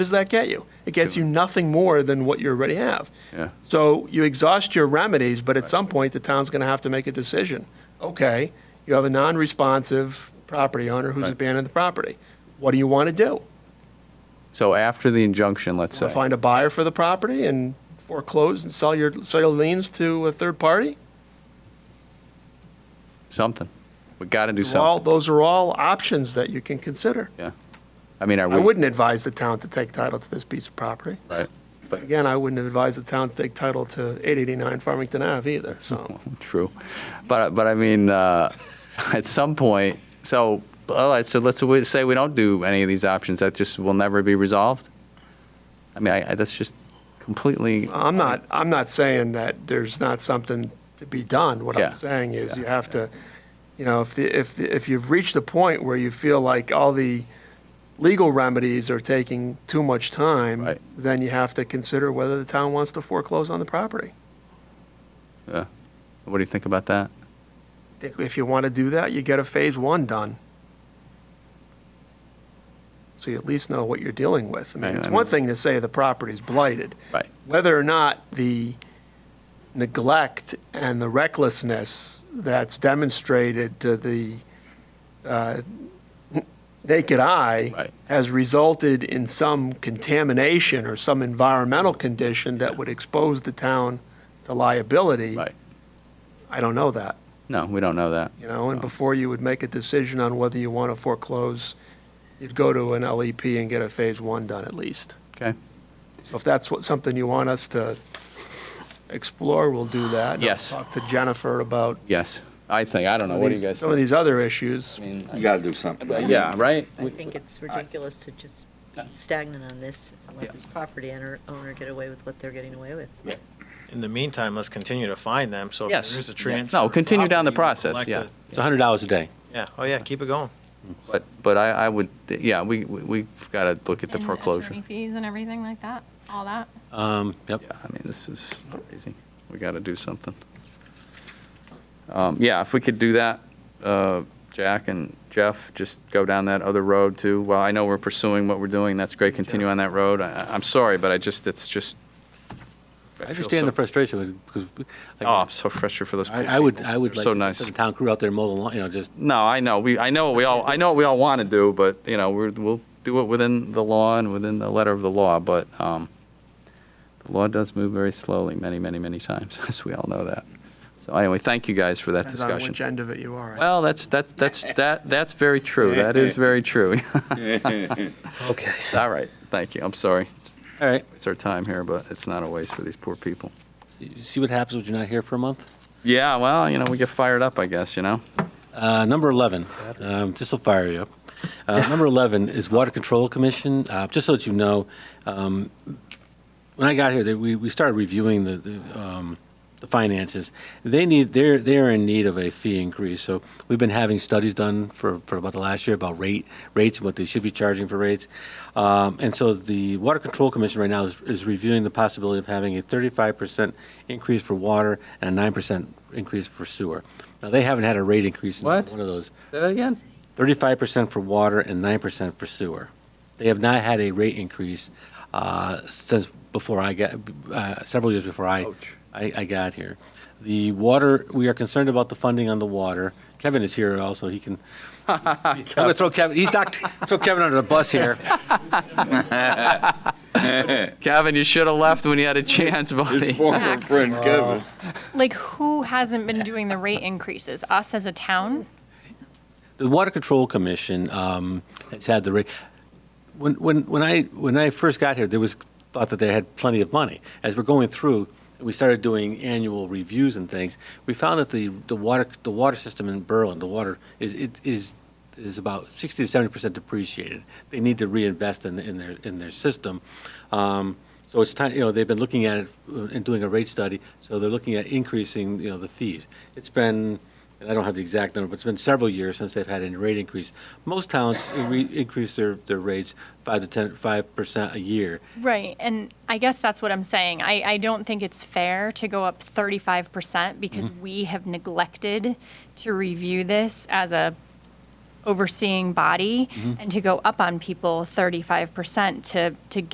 does that get you? It gets you nothing more than what you already have. Yeah. So you exhaust your remedies, but at some point, the town's going to have to make a decision. Okay, you have a non-responsive property owner who's Right. abandoned the property. What do you want to do? So after the injunction, let's So say, find a buyer for the property and foreclose and sell your, sell your liens to a third party? something. We got to do Those are all- something. Those are all options that you can consider. Yeah. I mean, I I wouldn't, wouldn't advise the town to take title to this piece of property. right? But, Again, I wouldn't advise the town to take title to 889 Farmington Ave either, so. true. But, but I mean, uh, at some point, so, all right, so let's we- say we don't do any of these options, that just will never be resolved? I mean, I, I- that's just completely, I'm Um, not, I'm not saying that there's not something to be done. What Yeah. I'm saying is you have to, you know, if, the- if, the- if you've reached a point where you feel like all the legal remedies are taking too much time, Right. then you have to consider whether the town wants to foreclose on the property. uh, what do you think about that? I think If you want to do that, you get a phase one done. So you at least know what you're dealing with. I mean, Right, it's I one mean- thing to say the property's blighted. Right. whether or not the neglect and the recklessness that's demonstrated to the uh, naked eye Right. has resulted in some contamination or some environmental condition that would expose the town to liability. Right. I don't know that, No, we don't know that. you know, and No. before you would make a decision on whether you want to foreclose, you'd go to an LEP and get a phase one done at least. Okay. So If that's what, something you want us to explore, we'll do that. And I'll Yes. Talk to Jennifer about Yes. I think, I don't know. What do you these- guys some of think? these other issues. I mean, You gotta do something. Yeah, right? I think it's ridiculous to just be stagnant on this and Yeah. let this property owner, owner get away with what they're getting away with. In the meantime, let's continue to find them, so if Yes. there's Yeah. a transfer. No, continue down the property, we process, yeah. collect It's hundred dollars a day. it. Yeah, oh yeah, keep it going. But, but I, I would, yeah, we, we- we've got to look at the And foreclosure. Attorney fees and everything like that, all that. Um, yep. Yeah, I mean, this is crazy. We got to do something. Um, Yeah, if we could do that, uh, Jack and Jeff, just go down that other road too. Well, I know we're pursuing what we're doing, that's great, continue on that road. I- I- I'm sorry, but I just, it's just. I feel understand the so- frustration with- because. like, Oh, I'm so frustrated for those poor I, people. I would, I would They're like. So to nice. send The town crew out there mow the lawn, you know, just, No, I know, we, I know what we all, I know what we all want to do, but, you know, we're, we'll do it within the law and within the letter of the law, but um, the law does move very slowly, many, many, many times, as we all know that. So anyway, thank you guys for that Depends on which discussion. end of it you are. at. Well, that's, that's, that's, that, that's very true, that is very true. okay. All right, thank you, I'm sorry, All right. it's our time here, but it's not a waste for these poor people. See- See what happens when you're not here for a month? Yeah, well, you know, we get fired up, I guess, you know? Uh, number 11, um, this will fire you up. Uh, number 11 is Water Control Commission. Uh, just so that you know, um, when I got here, they, we, we started reviewing the, the, um, the finances. They need, they're, they're in need of a fee increase. So we've been having studies done for, for about the last year about rate, rates, and what they should be charging for rates. Um, and so the Water Control Commission right now is, is reviewing the possibility of having a 35% increase for water and a 9% increase for sewer. Now, they haven't had a rate increase in What? one of those. Say that again? 35% for water and 9% for sewer. They have not had a rate increase uh, since before I got, uh, several years before I, I I got here. The water, we are concerned about the funding on the water. Kevin is here also, he can, I'm going to throw Kevin, he's not, throw Kevin under the bus here. Kevin, you should have left when you had a chance, buddy. His former friend Kevin. Like, who hasn't been doing the rate increases? Us as a town? The Water Control Commission um, has had the rate. When, when, when I when I first got here, there was thought that they had plenty of money. As we're going through, we started doing annual reviews and things. We found that the, the water the water system in Berlin, the water is it is is about 60 to 70 percent depreciated. They need to reinvest in, in their in their system. Um, so it's time, you know, they've been looking at it uh, and doing a rate study. So they're looking at increasing, you know, the fees. It's been, and I don't have the exact number, but it's been several years since they've had any rate increase. Most towns uh, re- increase their, their rates five to ten, five percent a year. Right, and I guess that's what I'm saying. I, I don't think it's fair to go up 35% because Mm-hmm. we have neglected to review this as a Mm-hmm. overseeing body and to go up on people 35% to, to